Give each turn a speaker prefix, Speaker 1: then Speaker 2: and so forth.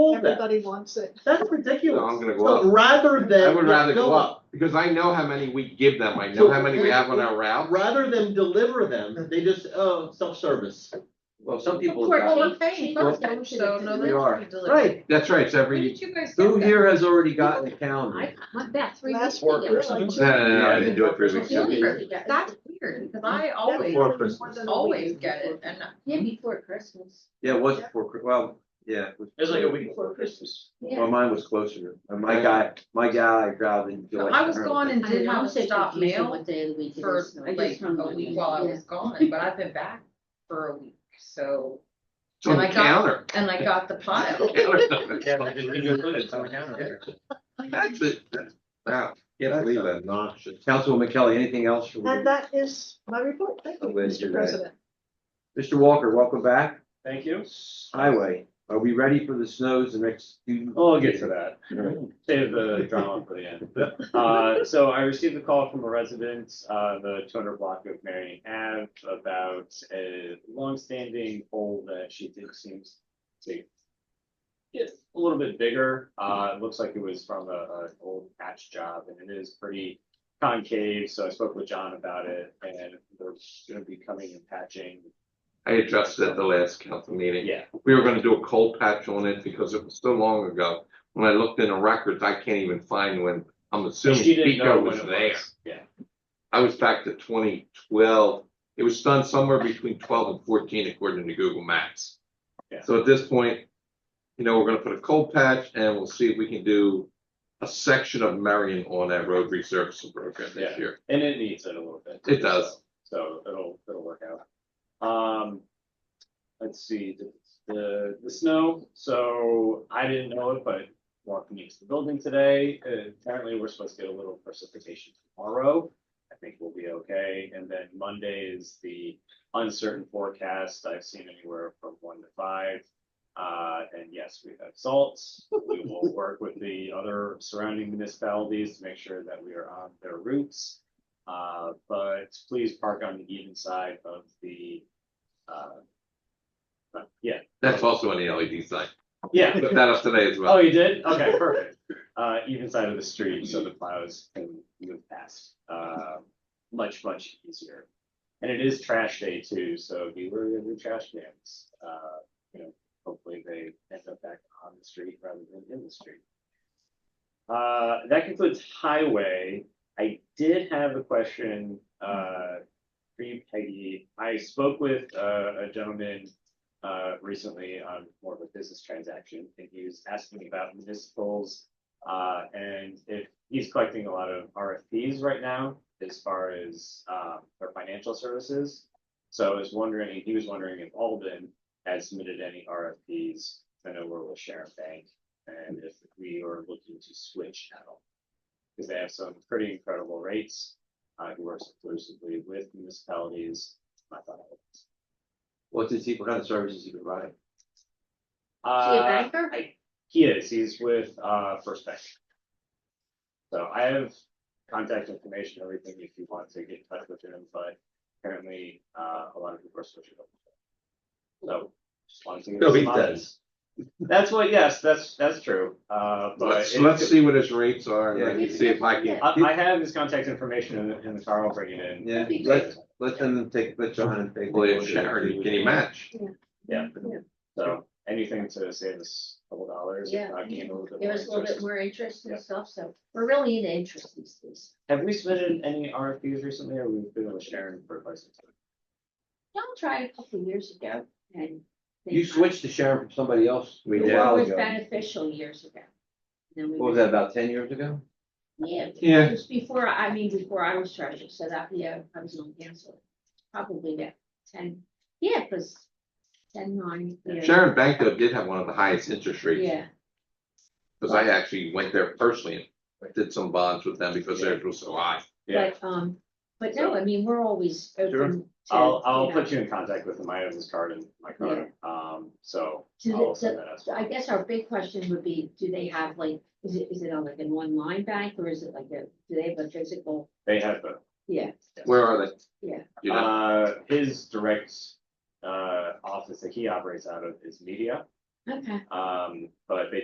Speaker 1: hold that.
Speaker 2: Everybody wants it.
Speaker 1: That's
Speaker 3: No, I'm
Speaker 1: ridiculous.
Speaker 3: gonna go
Speaker 1: So
Speaker 3: up.
Speaker 1: rather than.
Speaker 3: I would rather
Speaker 1: no,
Speaker 3: go up, because I know how many we give them, I know how many we have on our route.
Speaker 1: Rather than deliver them, they just, oh, self-service.
Speaker 3: Well, some
Speaker 4: Of
Speaker 3: people.
Speaker 4: course,
Speaker 3: got-
Speaker 5: Well,
Speaker 4: she-
Speaker 5: we're paying
Speaker 4: she
Speaker 5: for
Speaker 4: got
Speaker 5: it,
Speaker 4: it,
Speaker 5: so no,
Speaker 3: We
Speaker 5: that's
Speaker 3: are.
Speaker 5: be delivered.
Speaker 1: Right.
Speaker 3: That's right, it's
Speaker 5: When
Speaker 3: every,
Speaker 5: did you guys
Speaker 3: who
Speaker 5: get that?
Speaker 3: here has already gotten a calendar?
Speaker 5: I, my- that's three weeks
Speaker 2: Last
Speaker 5: ago.
Speaker 2: week, it was like-
Speaker 3: No, no, no, I didn't do it three weeks
Speaker 5: That's weird,
Speaker 3: ago.
Speaker 5: That's weird, because I always,
Speaker 3: Before Christmas.
Speaker 5: always get it, and
Speaker 4: Yeah, before Christmas.
Speaker 3: Yeah, it was before, Chri- well, yeah. It was
Speaker 1: before Christmas.
Speaker 3: Well, mine was closer, And my guy, my guy grabbed in
Speaker 5: so
Speaker 3: July.
Speaker 5: I was gone and did
Speaker 4: I
Speaker 5: not
Speaker 4: was so
Speaker 5: stop
Speaker 4: confused on
Speaker 5: mail
Speaker 4: What day of the week it
Speaker 5: for
Speaker 4: is. I
Speaker 5: like
Speaker 4: just hung
Speaker 5: a
Speaker 4: on it.
Speaker 5: week while I
Speaker 4: Yeah.
Speaker 5: was gone, but I've been back for a week, so,
Speaker 3: It's on
Speaker 5: and
Speaker 3: the
Speaker 5: I got-
Speaker 3: counter.
Speaker 5: and I got the pile.
Speaker 3: That's it, that's, wow, can't believe that.
Speaker 6: obnoxious.
Speaker 3: Councilwoman Kelly, anything else for
Speaker 2: And that is my report. Thank you,
Speaker 3: Oh, wait, you're
Speaker 2: Mr.
Speaker 3: right.
Speaker 2: President.
Speaker 3: Mr. Walker, welcome back.
Speaker 6: Thank you.
Speaker 3: Highway, are we ready for the snows the next few?
Speaker 6: I'll get to that.
Speaker 3: Alright.
Speaker 6: Save the drama for the end. Uh, so I received a call from a resident, uh, the two hundred block of Marion Ave about a longstanding hole that she thinks seems to get a little bit bigger. Uh, it looks like it was from a, an old patch job and it is pretty concave. So I spoke with John about it and they're gonna be coming and patching.
Speaker 3: I addressed it at the last council meeting.
Speaker 6: Yeah,
Speaker 3: We were gonna do a cold patch on it because it was so long ago. When I looked in the records, I can't even find when, I'm assuming
Speaker 6: she didn't know
Speaker 3: Pico
Speaker 6: when
Speaker 3: was
Speaker 6: it
Speaker 3: there.
Speaker 6: was. Yeah.
Speaker 3: I was back to twenty twelve. It was done somewhere between twelve and fourteen according to Google Maps.
Speaker 6: Yeah.
Speaker 3: So at this point, you know, we're gonna put a cold patch and we'll see if we can do a section of Marion on that road resurfacing program this
Speaker 6: Yeah.
Speaker 3: year.
Speaker 6: And it needs it a little bit.
Speaker 3: It does.
Speaker 6: So so it'll, it'll work out. Um, let's see, the, the, the snow, so I didn't know it, but walking into the building today, uh, apparently we're supposed to get a little precipitation tomorrow. I think we'll be okay. And then Monday is the uncertain forecast. I've seen anywhere from one to five. Uh, and yes, we have salts. We will work with the other surrounding municipalities to make sure that we are on their routes. Uh, but please park on the even side of the, uh, uh, yeah,
Speaker 3: That's also on the LED sign.
Speaker 6: yeah.
Speaker 3: Put that up today as
Speaker 6: Oh,
Speaker 3: well.
Speaker 6: you did? Okay, perfect. Uh, even side of the street, so the plows can move past, uh, much, much easier. And it is trash day too, so be wary of the trash cans. Uh, you know, hopefully they end up back on the street rather than in the street. Uh, that concludes highway. I did have a question, uh, for you, Peggy. I spoke with, uh, a gentleman uh, recently on more of a business transaction, and he was asking about municipals. Uh, and if he's collecting a lot of RFPs right now as far as, um, their financial services. So I was wondering, he was wondering if Alden had submitted any RFPs, I know we're with Sharon Bank, and if we are looking to switch at all. Because they have some pretty incredible rates, uh, who works exclusively with municipalities. I thought I would-
Speaker 3: What's it, what kind of services you provide?
Speaker 4: She a
Speaker 6: Uh,
Speaker 4: banker?
Speaker 6: I- He is, he's with uh First Bank. So I have contact information, everything if you want to get in touch with him, but apparently uh a lot of people are switching over. So. just wanted to give
Speaker 3: No, he
Speaker 6: some options. That's what, yes, that's that's true, uh but.
Speaker 3: Let's,
Speaker 6: it-
Speaker 3: let's see what his rates are and I
Speaker 4: Yeah.
Speaker 3: can see if I can.
Speaker 6: I I have his contact information in the in the car, I'll bring it in.
Speaker 3: Yeah,
Speaker 4: That'd be
Speaker 3: let,
Speaker 4: great.
Speaker 3: let them take, let John and take.
Speaker 6: Well, if
Speaker 3: Charity, can you match?
Speaker 6: So anything to save us a couple dollars, if
Speaker 4: Yeah.
Speaker 6: not gain a little bit
Speaker 4: There
Speaker 6: more
Speaker 4: was a little bit
Speaker 6: interest.
Speaker 4: more interest
Speaker 6: Yeah.
Speaker 4: and stuff, so we're really into interest these days.
Speaker 6: Have we submitted any RFPs recently or we've been with Sharon for quite some time?
Speaker 4: Y'all tried a couple of years ago and. they-
Speaker 3: You switched to Sharon from somebody else
Speaker 4: It
Speaker 3: a was while
Speaker 4: was
Speaker 3: ago.
Speaker 4: beneficial years ago. Then we
Speaker 3: What was that, about ten years ago?
Speaker 4: Yeah.
Speaker 3: Yeah.
Speaker 4: Just before, I mean, before I was treasurer, so that, yeah, I was on council, probably that ten, yeah, because ten nine. yeah.
Speaker 3: Sharon Bank though did have one of the highest interest rates,
Speaker 4: Yeah,
Speaker 3: because I actually went there personally and did some bonds with them because theirs was so high.
Speaker 6: Yeah.
Speaker 4: but, um, but no, I mean, we're always open to.
Speaker 6: I'll, I'll
Speaker 4: know,
Speaker 6: put you in contact with him. I have his card in my car. Um, so
Speaker 4: to the-
Speaker 6: I'll
Speaker 4: to-
Speaker 6: send that out.
Speaker 4: So I guess our big question would be, do they have like, is it, is it on like an online bank or is it like a, do they have a physical?
Speaker 6: They have the,
Speaker 4: Yeah,
Speaker 3: Where are they?
Speaker 4: Yeah.
Speaker 3: You know,
Speaker 6: uh, his direct, uh, office that he operates out of is media.
Speaker 4: okay.
Speaker 6: Um, but they